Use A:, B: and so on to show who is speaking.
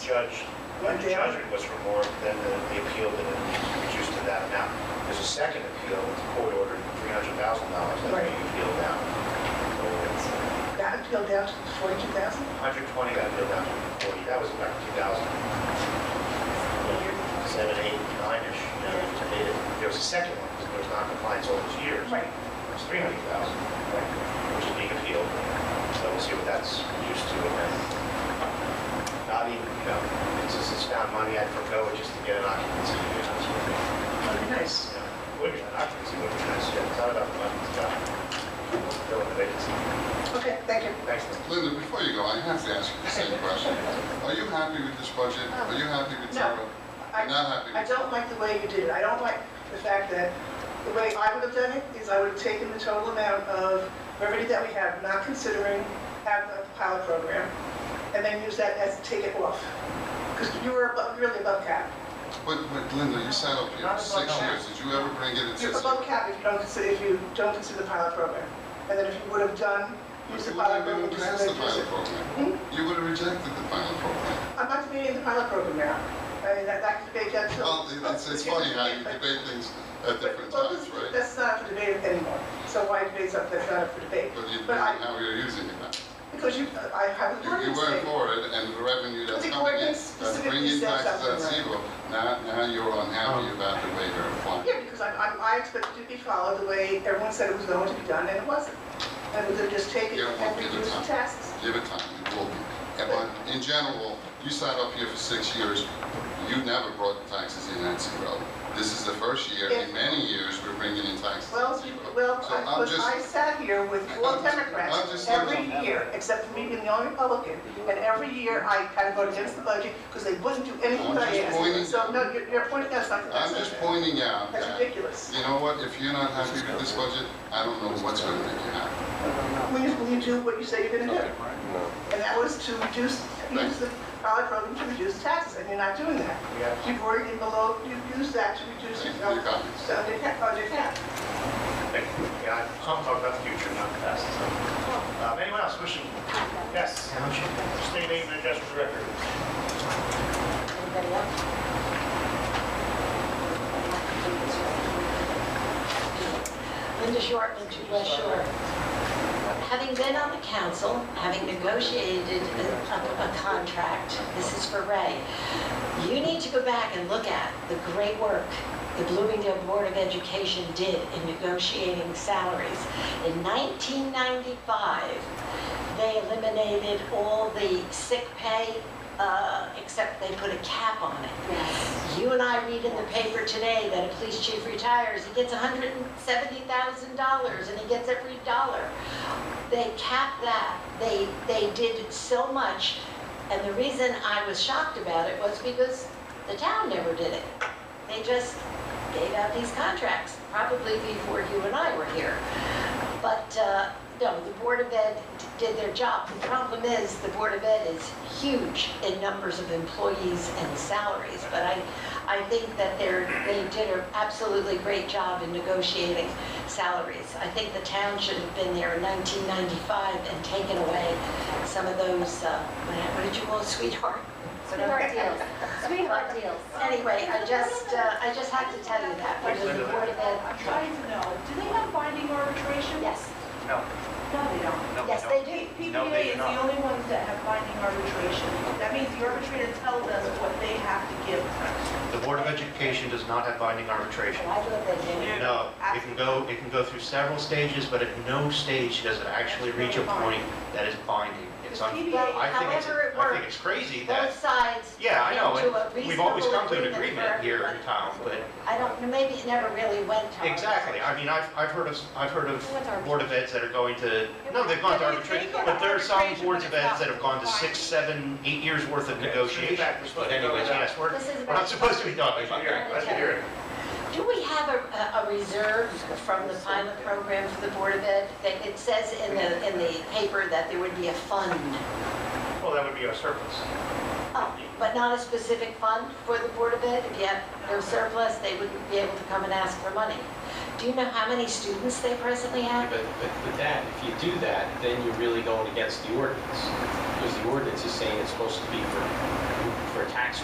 A: judge, when the judgment was for more than the the appeal, then it reduced to that amount. There's a second appeal, the court ordered three hundred thousand dollars, that
B: Right.
A: you appeal down.
B: That appealed down to forty-two thousand?
A: Hundred twenty got appealed down to forty, that was about two thousand seven, eight, nine-ish, you know, to eight. There was a second one, because there was non-compliance all those years.
B: Right.
A: It was three hundred thousand, which is being appealed, so we'll see what that's used to, and then not even, you know, it's just, it's found money I'd forego just to get an occupancy, you know, sort of thing.
B: Okay, nice.
A: You know, Would be an occupancy, would be nice, yeah, it's not about the money, it's about filling the vacancy.
B: Okay, thank you.
A: Thanks, Lynn.
C: Linda, before you go, I have to ask you the same question. Are you happy with this budget? Are you happy with
B: No.
C: zero?
B: I-
C: You're not happy
B: I
C: with
B: don't like the way you did it. I don't like the fact that, the way I would have done it is I would have taken the total amount of revenue that we have, not considering having a pilot program, and then use that as, take it off. Because you were above- really above cap.
C: But, but Linda, you sat up here
A: Not as
C: for
A: much
C: six
A: now.
C: years. Did you ever bring it in
B: You're
C: six
B: above
C: years?
B: cap if you don't consider, if you don't consider the pilot program. And then if you would have done, use the Hmm?
C: You
B: pilot program.
C: wouldn't even
B: just
C: pass the
B: like use
C: pilot
B: it.
C: program. You would have rejected the pilot program.
B: I'm not debating the pilot program now. I mean, that, that could debate that too.
C: Well, it's, it's funny how you debate things at different
B: Well,
C: times,
B: this-
C: right?
B: That's not up for debate anymore. So why debate something that's not up for debate?
C: But you,
B: But I,
C: how you're using it now.
B: because you, I have an
C: You- You
B: ordinance
C: weren't
B: thing.
C: for it, and the revenue that's
B: The
C: coming in,
B: ordinance
C: that's bringing
B: specifically says
C: taxes at
B: something,
C: zero. Now, now you're unhappy about the way you're applying.
B: Yeah, because I'm, I'm, I expect it to be followed the way everyone said it was going to be done, and it wasn't. And they're just taking
C: Yeah,
B: and
C: we'll give it
B: reducing
C: time.
B: taxes.
C: Give it time, it will be. And But in general, you sat up here for six years, you never brought taxes in at zero. This is the first year in many years we're bringing in taxes at
B: Well,
C: zero.
B: you- well,
C: So
B: I-
C: I'm
B: because
C: just-
B: I sat here with all
C: I'm just- I'm
B: Democrats
C: just
B: every
C: looking-
B: year, except for me being the only Republican. And every year, I had to vote against the budget because they wouldn't do anything
C: I'm
B: that I
C: just pointing-
B: asked. So, no, you're, you're pointing out something
C: I'm
B: that's
C: just pointing out
B: that's
C: that,
B: ridiculous.
C: you know what, if you're not happy with this budget, I don't know what's gonna make you happy.
B: When you, when you do what you say you're gonna do. And that was to reduce, use the pilot program to reduce taxes, and you're not doing that.
A: Yeah.
B: You've already been below, you've used that to reduce your,
C: Thank you for
B: uh,
C: your comments.
B: so your cap, on your cap.
A: Yeah, I'm talking about the future, not the past. so. Um, Anyone else wishing? Yes. State name and address for the record.
D: Anybody else? Linda Shortman, to West Shore. Having been on the council, having negotiated a, a- a contract, this is for Ray, you need to go back and look at the great work the Bloomingdale Board of Education did in negotiating salaries. In 1995, they eliminated all the sick pay, uh, except they put a cap on it. You and I read in the paper today that a police chief retires, he gets $170,000 and he gets every dollar. They capped that, they, they did so much, and the reason I was shocked about it was because the town never did it. They just gave out these contracts, probably before you and I were here. But, uh, no, the Board of Ed d- did their job. The problem is, the Board of Ed is huge in numbers of employees and salaries, but I, I think that they're, they did an absolutely great job in negotiating salaries. I think the town should have been there in 1995 and taken away some of those, uh, what did you call it, sweetheart?
E: Sweetheart deals. Sweetheart deals.
D: Anyway, I just, uh, I just had to tell you that, because the Board of Ed,
F: I'm trying to know, do they have binding arbitration?
D: yes,
G: No,
F: No, they don't.
G: no,
D: yes,
G: no.
D: they do.
G: No,
F: PBA
G: they do
F: is the
G: not.
F: only ones that have binding arbitration. That means the arbitrator tells us what they have to give.
H: The Board of Education does not have binding arbitration.
D: Oh, I thought they did.
H: No, it can go, it can go through several stages, but at no stage does it actually reach a point that is binding. It's un, I think it's,
D: However it
H: I think
D: works.
H: it's crazy
D: Both
H: that,
D: sides.
H: yeah, I know,
D: came to a
H: and we've always
D: reasonable
H: come to an agreement
D: for-
H: here in town, but,
D: I don't, know. maybe it never really went to.
H: exactly, I mean, I've, I've heard of, I've heard
E: What's
H: of
E: arbitration?
H: Board of Eds that are going to, no, they've gone to
F: They- they
H: arbitration,
F: go to
H: but there are some
F: arbitration
H: boards
F: when
H: of
F: it's
H: Eds that
F: not
H: have gone to six, seven, eight years worth of negotiation. But anyways, yes, we're,
D: This is
H: we're not supposed to be talking about that.
A: Let's hear it.
D: Do we have a, a- a reserve from the pilot program for the Board of Ed? That It says in the, in the paper that there would be a fund,
A: Well, that would be our surplus.
D: Oh, but not a specific fund for the Board of Ed? If you have no surplus, they wouldn't be able to come and ask for money. Do you know how many students they presently
I: But,
D: have?
I: but with that, if you do that, then you're really going against the ordinance, because the ordinance is saying it's supposed to be for